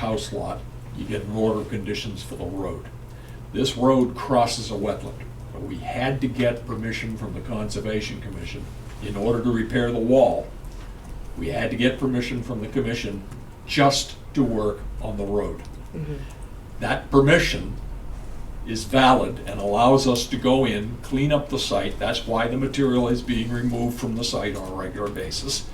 house lot, you get an order of conditions for the road. This road crosses a wetland, but we had to get permission from the Conservation Commission in order to repair the wall. We had to get permission from the commission just to work on the road. Mm-hmm. That permission is valid and allows us to go in, clean up the site. That's why the material is being removed from the site on a regular basis.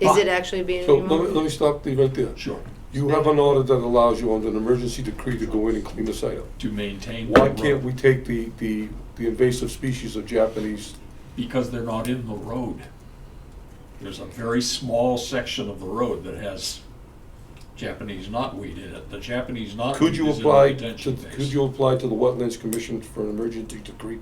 Is it But- actually being So let me, let me removed? stop you right there. Sure, You have an order that allows you under an emergency decree to go in and clean the site up. to maintain. the Why can't road. we take the, the, the invasive species of Japanese? Because they're not in the road. There's a very small section of the road that has Japanese knotweed in it. The Japanese knotweed Could is you in the apply, to- detention could phase. you apply to the Wetlands Commission for an emergency decree?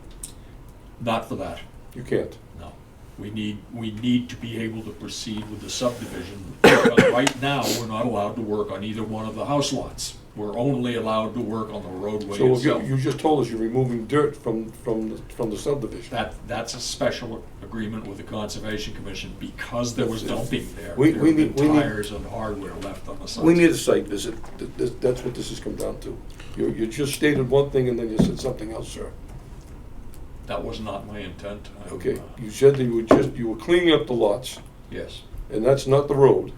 Not for that, You can't. no. We need, we need to be able to proceed with the subdivision. But right now, we're not allowed to work on either one of the house lots. We're only allowed to work on the roadway So if you, itself. you just told us you're removing dirt from, from, the- from the subdivision. That, that's a special agreement with the Conservation Commission because there was dumping there. We- There we have been need- we need- Tires and hardware left on the site. We need a site visit. Th- th- That's what this has come down to. You, you just stated one thing and then you said something else, sir. That was not my intent. I'm, Okay, uh, you said that you were just, you were cleaning up the lots, Yes. and that's not the road.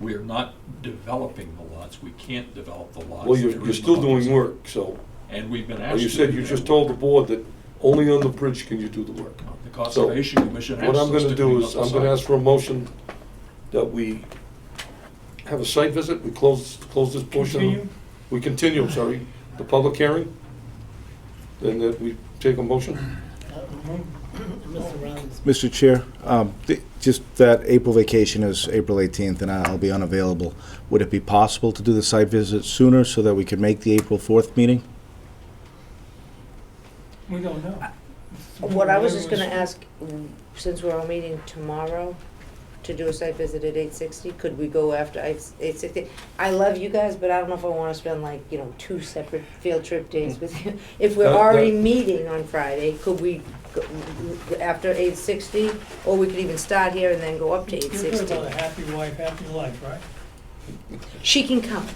We're not developing the lots. We can't develop the lots. Well, you're, They're you're in still the doing housing. work, so, And we've been well, asked. you to said do you that. just told the board that only on the bridge can you do the work. The Conservation Commission asked What I'm us to gonna do clean is, up the I'm gonna site. ask for a motion that we have a site visit, we close, close this portion. Continue? We continue, sorry, the public hearing, then that we take a motion. Mr. Rollins, Mr. Chair, um, th- just that April vacation is April 18th, and I'll be unavailable. Would it be possible to do the site visit sooner so that we can make the April 4th meeting? We don't know. What I was just gonna Mm-hmm. ask, mm, since we're all meeting tomorrow to do a site visit at eight sixty, could we go after eight sixty? I love you guys, but I don't know if I wanna spend like, you know, two separate field trip days with you. If we're Mm. That- that- already meeting on Friday, could we, go- after eight sixty, or we could even start here and then go up to eight You're good sixty? about a happy wife, happy life, right? She can come.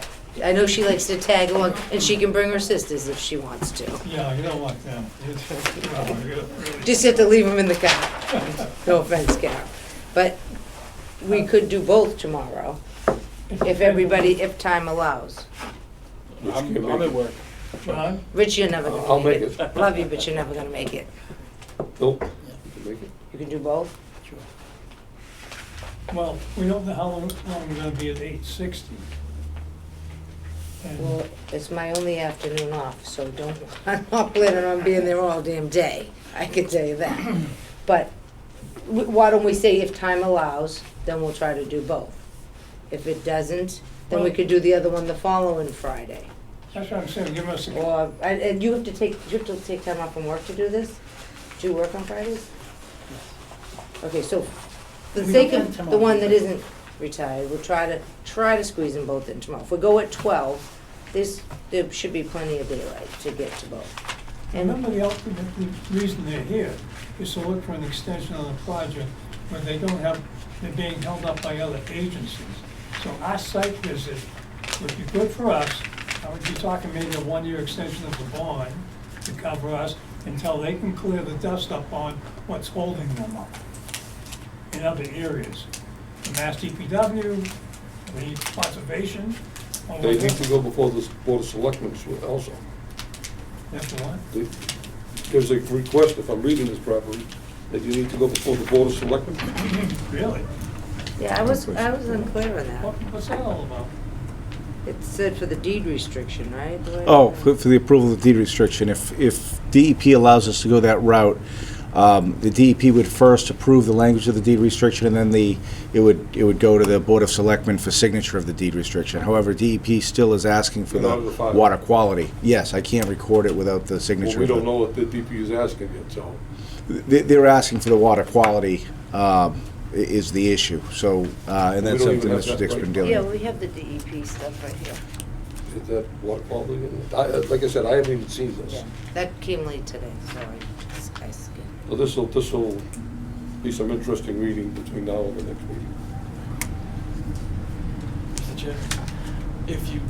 I know she likes to tag along, and she can bring her sisters if she wants to. Yeah, you don't want them. Oh, you're really- Just have to leave them in the car. No offense, Carol. But we could do both tomorrow, if everybody, if time allows. I'm, I'm at work. John, Rich, you're never I'll gonna make make it. it. Love you, but you're never gonna make it. Nope. You can make it. You can do both? well, we don't know how long, long we're gonna be at eight sixty. And Well, it's my only afternoon off, so don't, I'm not planning on being there all damn day, I can tell you that. But w- why don't we say if time allows, then we'll try to do both. If it doesn't, then we could do the other one the following Friday. that's what I'm saying, give us a, Or, and, and you have to take, you have to take time off from work to do this? Do you work on Fridays? Okay, so, for the We don't sake plan of tomorrow. the one that isn't retired, we'll try to, try to squeeze them both in tomorrow. If we go at twelve, this, there should be plenty of daylight to get to both. remember the ultimate reason they're here is to look for an extension on the project when they don't have, they're being held up by other agencies. So our site visit would be good for us. I would be talking maybe a one-year extension of the bond to cover us until they can clear the dust up on what's holding them up in other areas. The Mass DPW, the conservation. all They of need that. to go before the Board of Selectmen also. That's the one. They- There's a request, if I'm reading this properly, that you need to go before the Board of Selectmen. Really? Yeah, I was, I was unclear on What, that. what's that all about? It said for the deed restriction, right? The way- Oh, for for the approval of the deed restriction, if, if DEP allows us to go that route, um, the DEP would first approve the language of the deed restriction, and then the, it would, it would go to the Board of Selectmen for signature of the deed restriction. However, DEP still is asking for In order to the file. water quality. Yes, I can't record it without the Well, signature. we of the- don't know what the DP is asking yet, so. They- They're asking for the water quality um, i- is the issue, so, uh, and We that's don't something even have Mr. that Dick's right been now. dealing Yeah, with. we have the DEP stuff right here. Is that water quality? in it? I- uh, Like I said, I haven't even seen this. Yeah, that came late today, sorry. I skipped. So this'll, this'll be some interesting reading between now and the next meeting. Mr. Chair, if you